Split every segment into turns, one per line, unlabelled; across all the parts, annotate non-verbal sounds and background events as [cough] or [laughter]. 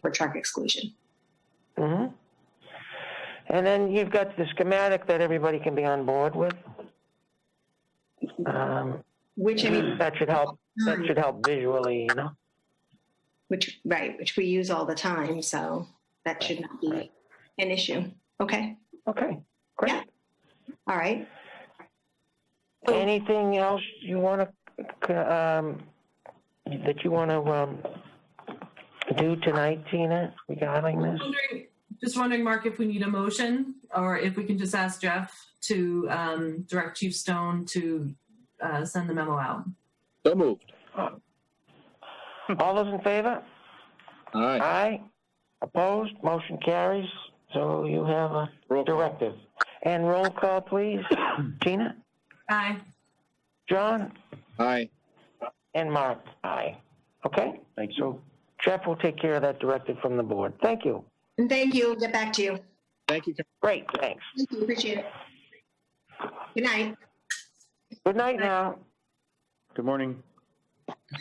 for truck exclusion.
hmm And then you've got the schematic that everybody can be on board with. Um,
Which I mean,
that should help, that should help visually, you know?
which right, which we use all the time, so that should not be
Right.
an issue. Okay,
Okay, great.
Yeah. all right.
Anything else you want to, um, that you want to, um, do tonight, Tina,
[laughs]
regarding this?
wondering, just wondering, Mark, if we need a motion or if we can just ask Jeff to um, direct Chief Stone to uh, send the memo out.
So moved.
All those in favor?
All right.
Aye. Opposed? Motion carries. So you have a
Roll call.
directive. And roll call, please.
[coughs]
Tina,
Aye.
John,
Aye.
and Mark. Aye. Okay? Thank you. Jeff will take care of that directive from the board. Thank you.
And thank you. Get back to you.
Thank you.
Great, thanks.
Thank you. Appreciate it. Good night.
Good night now.
Good morning.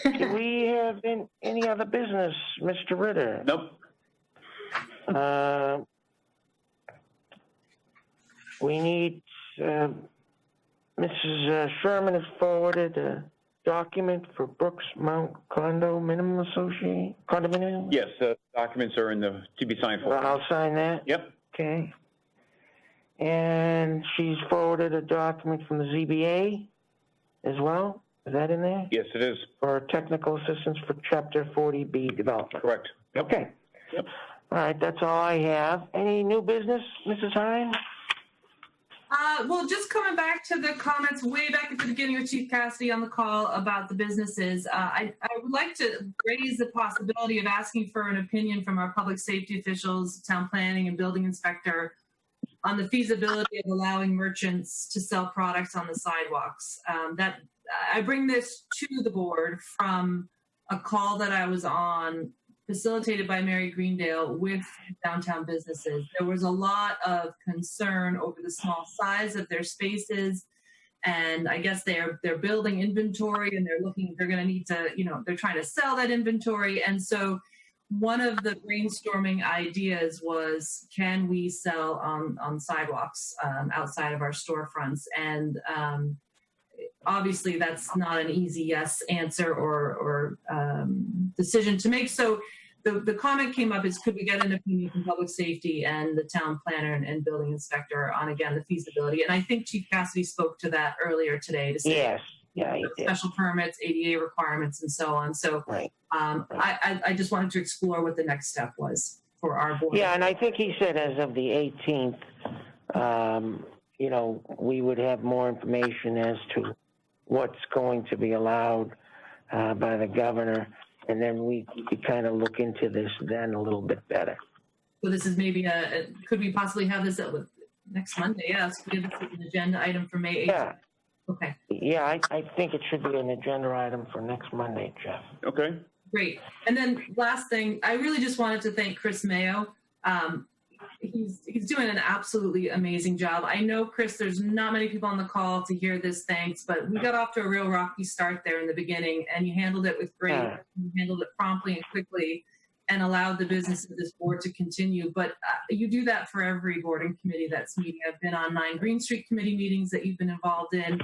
Do we have an- any other business, Mr. Ritter?
Nope.
Uh, We need, uh, Mrs. Sherman has forwarded a document for Brooks Mount Condo Minimum Association, condominium?
Yes, the documents are in the, to be signed
Well,
for.
I'll sign that,
Yep,
okay. And she's forwarded a document from the ZBA as well, is that in there?
yes, it is,
For technical assistance for chapter forty B development.
correct.
Okay.
Yep.
All right, that's all I have. Any new business, Mrs. Hines?
Uh, well, just coming back to the comments way back at the beginning with Chief Cassidy on the call about the businesses, uh, I, I would like to raise the possibility of asking for an opinion from our public safety officials, town planning, and building inspector on the feasibility of allowing merchants to sell products on the sidewalks. Um, that I bring this to the board from a call that I was on facilitated by Mary Greendale with downtown businesses. There was a lot of concern over the small size of their spaces. And I guess they're they're building inventory and they're looking, they're gonna need to, you know, they're trying to sell that inventory. And so one of the brainstorming ideas was can we sell on on sidewalks um, outside of our storefronts? And um, obviously that's not an easy yes answer or or um, decision to make. So the, the comment came up is could we get an opinion from public safety and the town planner and, and building inspector on again the feasibility and i think chief cassidy spoke to that earlier today to say
Yes, yeah, you did,
special permits ada requirements and so on so
right.
um, I, I, I just wanted to explore what the next step was for our board
Yeah, and I think he said as of the eighteenth, um, you know, we would have more information as to what's going to be allowed, uh, by the governor. And then we could kind of look into this then a little bit better.
so this is maybe a, a- could we possibly have this at with next monday yes we have this as an agenda item for may 8th
Yeah,
okay
yeah, I, I think it should be an agenda item for next Monday, Jeff.
Okay,
Great. And then last thing, I really just wanted to thank Chris Mayo. Um, he's he's doing an absolutely amazing job. I know Chris, there's not many people on the call to hear this thanks, but we got off to a real rocky start there in the beginning, and you handled it with great.
Yeah.
You handled it promptly and quickly, and allowed the business of this board to continue. But uh, you do that for every board and committee that's meeting. I've been on nine Green Street committee meetings that you've been involved in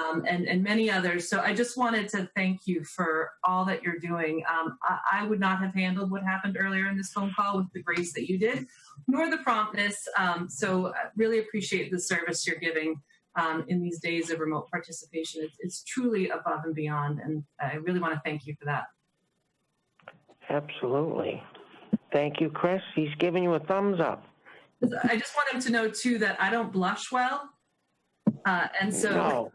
um, and, and many others. So I just wanted to thank you for all that you're doing. Um, I, I would not have handled what happened earlier in this phone call with the grace that you did, nor the promptness. Um, so I really appreciate the service you're giving um, in these days of remote participation. It's, it's truly above and beyond, and I really want to thank you for that.
Absolutely. Thank you, Chris. He's giving you a thumbs up.
'Cause I just want him to know too that I don't blush well, uh, and so.
No.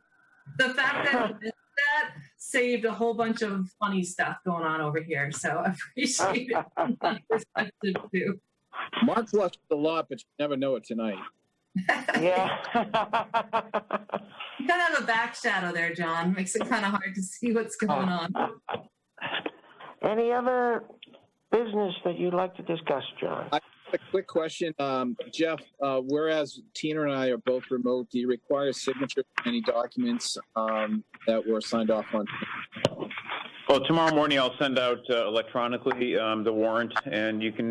the fact that that saved a whole bunch of funny stuff going on over here. So I
[laughs]
appreciate it from that perspective too.
Mark's lost a lot, but you never know it tonight.
Yeah. [laughs]
You kind of have a back shadow there, John. Makes it kind of hard to see what's going on.
Any other business that you'd like to discuss, John?
A quick question, um, Jeff. Uh, whereas Tina and I are both remote, do you require signature for any documents um, that were signed off on?
Well, tomorrow morning I'll send out uh, electronically um, the warrant, and you can